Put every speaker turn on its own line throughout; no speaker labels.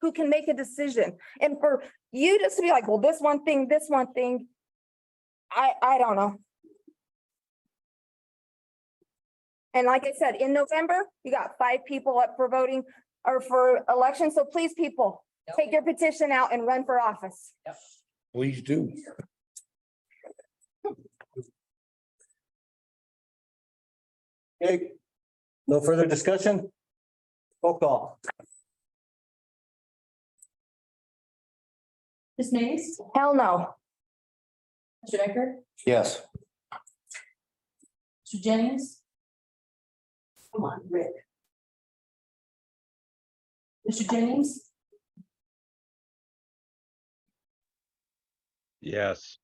who can make a decision. And for you just to be like, well, this one thing, this one thing. I, I don't know. And like I said, in November, you got five people up for voting or for election. So please, people, take your petition out and run for office.
Please do.
Okay, no further discussion? Roll call.
Ms. Mays?
Hell no.
Mr. Decker?
Yes.
Mr. Jennings? Come on, Rick. Mr. Jennings?
Yes,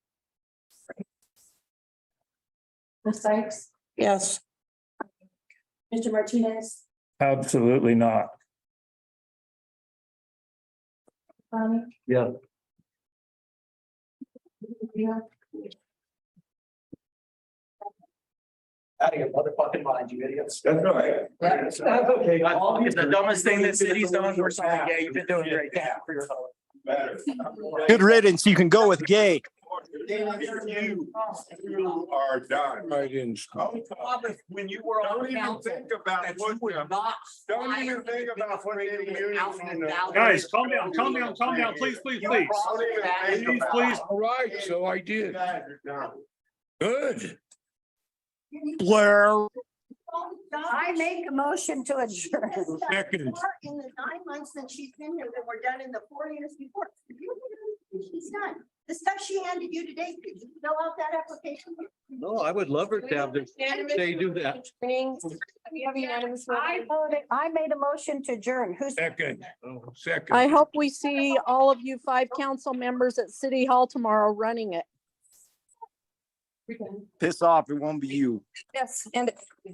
Ms. Sykes?
Yes.
Mr. Martinez?
Absolutely not.
Bonnie?
Yeah.
Yeah.
Out of your motherfucking mind, you idiots.
That's all right.
That's okay.
It's the dumbest thing that city's done. We're saying, yeah, you've been doing great.
Yeah.
Good riddance. You can go with gay.
You you are done.
I didn't.
When you were
Oh, Don't even think about what, the-
not.
don't even think about what the unions. on the-
Guys, calm down, calm down, calm down, please, please, please.
Don't even think
Please,
about
please.
it.
All right, so I
You
did.
guys are done.
Good.
Blur.
I make a motion to adjourn.
Second.
far in the nine months that she's been here that were done in the four years before. She's done. The stuff she handed you today, could you fill out that application?
No, I would love her to have this. They do that.
I voted- I made a motion to adjourn. Who's?
Second. Oh, Second.
I hope we see all of you five council members at City Hall tomorrow running it.
Piss off. It won't be you.
Yes, and